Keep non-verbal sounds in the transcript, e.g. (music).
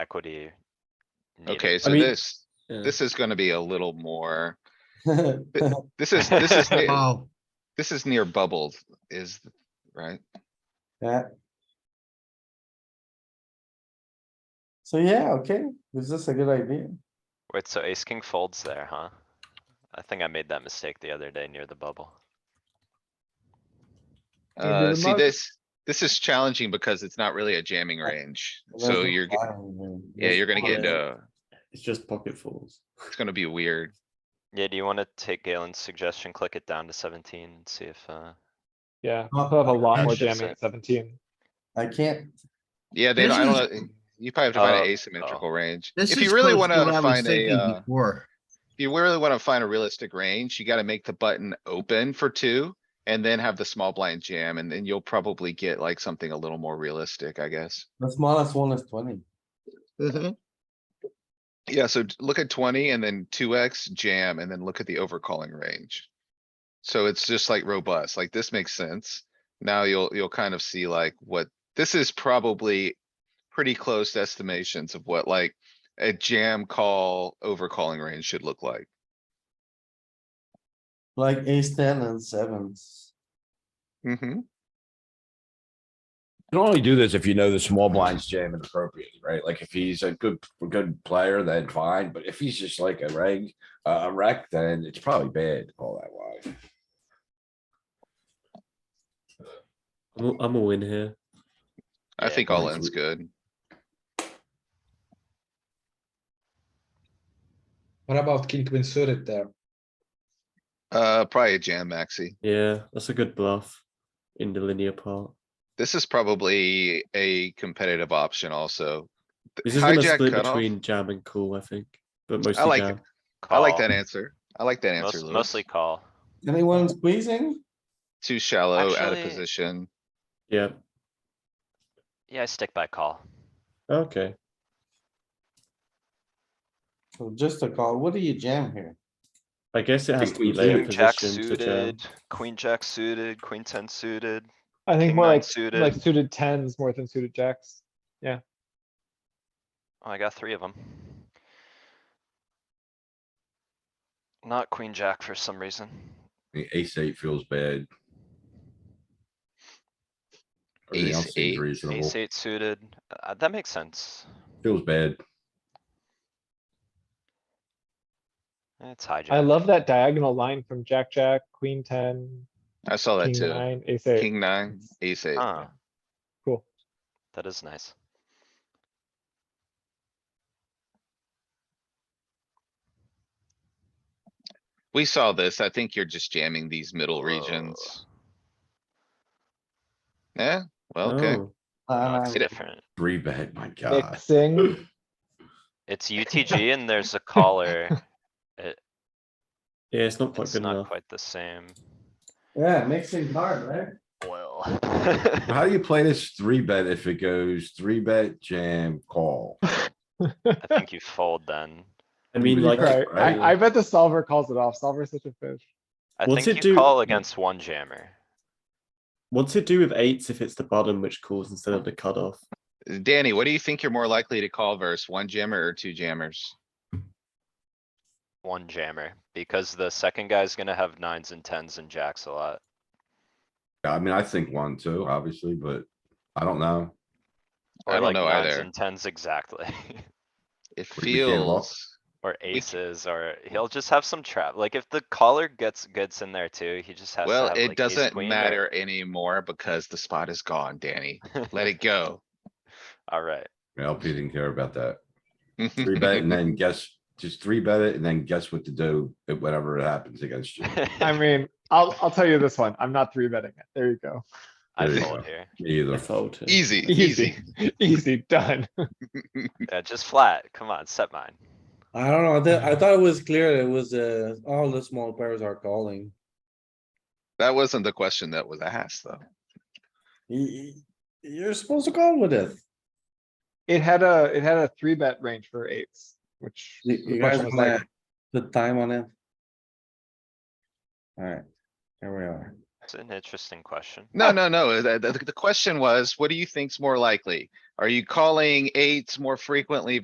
equity. needed. Okay, so mean- this, Yeah. (laughs) this is gonna be a little more, Yeah, this is, this is, near- (laughs) Oh, this is near bubbled is, right? So yeah, okay, this is a good idea. Wait, so ace king folds there, huh? I think I made that mistake the other day near the bubble. Do you do Uh, the see mug? this, this is challenging because it's not really a jamming range. So That's you're, ge- fine, man. yeah, That's you're gonna get, fine. uh, it's just pocket fools. it's gonna be weird. Yeah, do you wanna take Galen's suggestion, click it down to seventeen, and see if, uh, Yeah, Not- I'll have a lot That's more just jamming it. at seventeen. I can't, Yeah, they, This Oh, don't- I don't, know, you probably have to find an asymmetrical range. This If is you really close to what I wanna was find a, thinking uh, Before, if you really wanna find a realistic range, you gotta make the button open for two. And then have the small blind jam and then you'll probably get like something a little more realistic, I guess. the smallest one is twenty. Yeah, so t- look at twenty and then two X jam and then look at the overcalling range. So it's just like robust, like this makes sense. Now you'll, you'll kind of see like what, this is probably pretty close estimations of what like a jam call overcalling range should look like. Like ace ten and sevens. hmm You can only do this if you know the small blinds jam appropriately, right? Like if he's a good, a good player, then fine, but if he's just like a reg, uh, a wreck, then it's probably bad all that wide. I'm a, I'm a win here. I Yeah, think all like in's we- good. What about king queen suited there? Uh, probably a jam maxi. Yeah, that's a good bluff in the linear part. This is probably a competitive option also. Th- This is gonna hijack split cutoff. between jam and cool, I think, but mostly I like jam. I like call. that answer. I like that answer, Most- Louis. Mostly call. Anyone squeezing? Too shallow, out of Actually- position. Yeah. Yeah, I stick by call. Okay. So Oh, just a call, what do you jam here? I guess it has to be Queen later King jack position to jam. suited, queen jack suited, queen ten suited. I think King more nine like, suited. like suited tens more than suited jacks. Oh, I got three of them. Not queen jack for some reason. The Ace eight feels bad. Everything Ace else eight, seems reasonable, Ace eight suited, uh, that makes sense. feels bad. It's hijack. I love that diagonal line from jack, jack, queen ten, I saw that king too. nine, ace eight. King nine, ace eight. Huh. Cool. Ah. That is nice. We saw this. I think you're just jamming these middle Whoa. regions. Yeah, well, okay. Oh, No, It's Uh, It- different. Three bet, my god. Mixing. It's (laughs) UTG and there's a caller. Yeah, it's not quite It's good not enough. quite the same. Yeah, mixing hard, right? (laughs) Well. How do you play this three bet if it goes three bet, jam, call? I think you fold then. I mean, Really like, Right, Right, right. I, I bet the solver calls it off. Solver's such a fish. I What's think it you do- call against one jammer. what's it do with eights if it's the bottom which calls instead of the cutoff? Oh. Danny, what do you think you're more likely to call versus one jammer or two jammers? One jammer, because the second guy's gonna have nines and tens and jacks a lot. I mean, I think one, two, obviously, but I don't know. I Or don't like know nines either. and tens exactly. (laughs) It What if we can't lock? feels, Or c- aces, or he'll just have some trap. Like if the caller gets goods in there too, he just has to well, have it like ace doesn't queen or- matter anymore because the spot is gone, Danny. (laughs) Let it go. Alright, LP didn't care about that. Three bet (laughs) and then guess, just three bet it and then guess what to do, if whatever it happens against you. I mean, I'll, I'll tell you this one. I'm not three betting it. There you go. I There you fold go. here. Me I Either. fold here. Easy, easy. Easy, (laughs) easy, done. Yeah, just flat. Come on, set mine. I don't know, I thought, I thought it was clear, it was, uh, all the small pairs are calling. That wasn't the question that was asked, though. You, are supposed to call with it. It had a, it had a three bet range for eights, which You, you much guys was like, wanna put time on it? Alright, here we are. It's an interesting question. Uh, No, no, no. The, the, the question was, what do you think's more likely? Are you calling eights more frequently